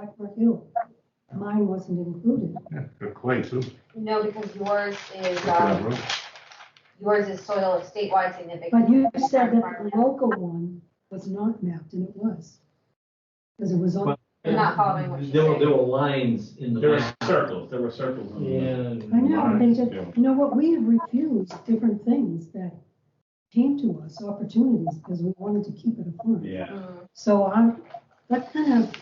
like review. Mine wasn't included. Yeah, Good clay too. No, because yours is, Look at that um, room. yours is soil of statewide significance. But you said that the local one was not mapped, and it was. Because it was on, I'm not following what she's There were, saying. there were lines in the. There were map. circles, there were circles. on the map. Yeah. I know, they just, Yeah. you know what, we have refused different things that came to us, opportunities, because we wanted to keep it afloat. Yeah, Mm, So I'm, that kind of,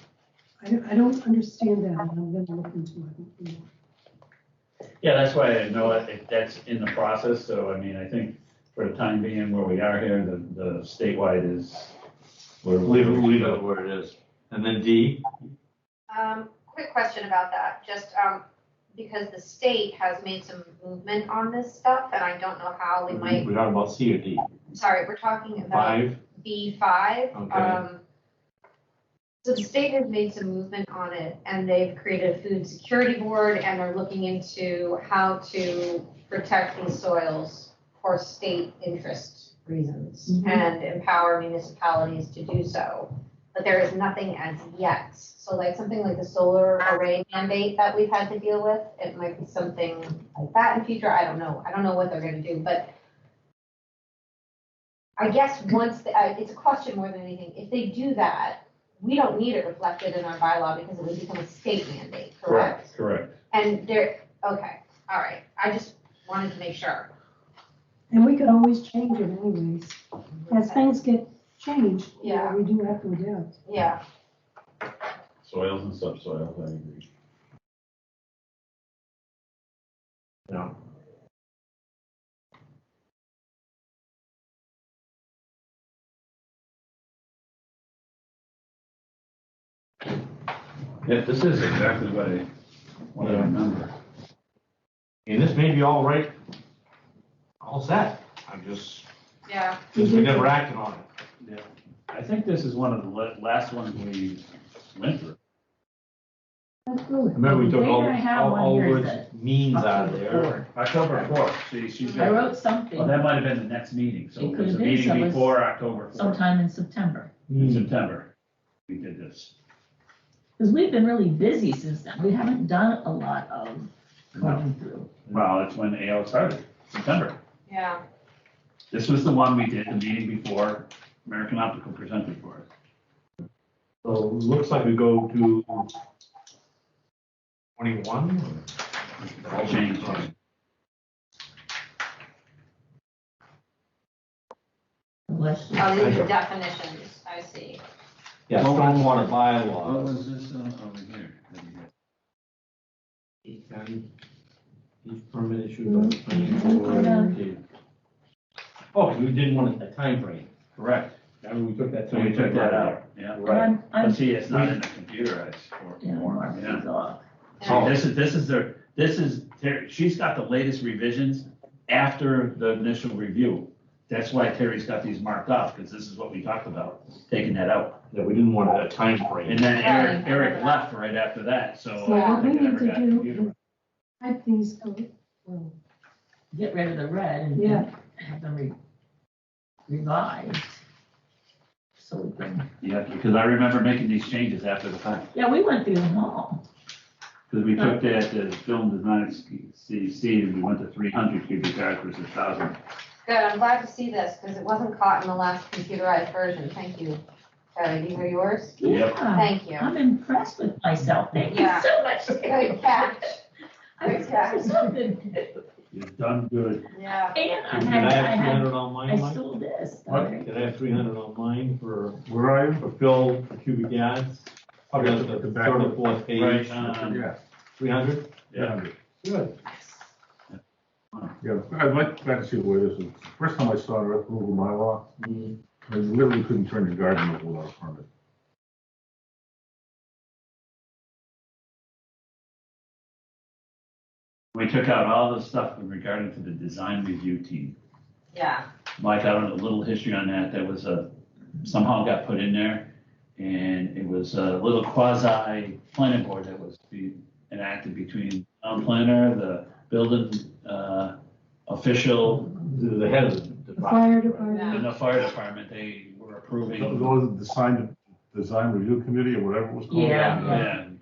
I don't, I don't understand that, and I'm gonna look into it. more. yeah, that's why I know it, it- that's in the process, so I mean, I think for the time being where we are here, the, the statewide is. we're- Leave it, leave Know it. where it is. And then D, Um, quick question about that, just, um, because the state has made some movement on this stuff, and I don't know how we might, we are about C or D, sorry, we're talking about five, B five. Okay. Um, So the state has made some movement on it, and they've created a food security board, and they're looking into how to protect these soils for state interest reasons Mhm. and empower municipalities to do so. But there is nothing as yet. So like something like the solar array mandate that we've had to deal with, it might be something like that in future. I don't know. I don't know what they're gonna do, but I guess once, the- I- it's a question more than anything. If they do that, we don't need it reflected in our bylaw because it would become a state mandate, correct? Correct, correct. And there, okay, all right, I just wanted to make sure. And we could always change it anyways. As things get changed, you know, Yeah. we do have to adapt. Yeah, Soils and subsoils, I agree. no. Yeah, this is exactly what I, what I remember. And this may be all right, all set, I'm just, yeah. just we never acted on it. Yeah. I think this is one of the la- last ones we went through. That's really. Remember, we took all, Later, I have all, one all here words that- means out of there. October fourth, see, she's. I wrote Well, something that might have been the next meeting, so It it could was a have been, so meeting it was before October fourth, sometime in September, in September, we did this. because we've been really busy since then. We haven't done a lot of going through. Well, it's when AL started, September. Yeah, This was the one we did the meeting before American Optical presented for us. So it looks like we go to twenty-one. All changed. Unless- oh, these are definitions, I see. Yeah, stormwater bylaw. was Oh, this uh, over here? Each county, each permit issued by the Mm-hmm. planning board. Oh, you didn't want a timeframe, correct. I mean, we took that. So we took that out, yeah. And Right. I'm, But I'm, see, it's not in the computerized yeah, form, Mark yeah. is off. See, This is, this is their, this is, Terry- she's got the latest revisions after the initial review. That's why Terry's got these marked off, because this is what we talked about, taking that out. Yeah, we didn't want a timeframe. And then Eric, Eric left right after that, so. So I what don't we think it need ever to got do, computerized. type these, code- well, Get rid of the red and Yeah. and have them re- revised. So we can, Yeah, because I remember making these changes after the fact. yeah, we went through them all. Because we took that, the film does not CC, and we went to three hundred cubic yards versus thousand. Good, I'm glad to see this, because it wasn't caught in the last computerized version, thank you. Charlie, these are yours? Yep. Yeah, Thank you. I'm impressed with myself. Thank you Yeah. so much. Good catch, I'm impressed with something. You've done good. yeah. And I Did had, I I have three had, hundred on mine, I Mike? sold this. What? Did I have three hundred on mine for? Where are you? For Phil, for cubic yards. Okay, That's the the back third one. or fourth page. uh, um, Yeah, Three hundred? Yeah. Good. yeah. I'd like, glad to see where this is. First time I saw it, Earth Removal Bylaw, Mm-hmm. I literally couldn't turn the garden over without a permit. We took out all the stuff in regarding to the design review team. Yeah, Mike, I don't know, a little history on that, that was a, somehow got put in there. And it was a little quasi planning board that was be enacted between town planner, the building, uh, official, The the head of the the department. fire department. and the fire department, they were approving. Those, the sign, design review committee or whatever it was called. Yeah. Yeah,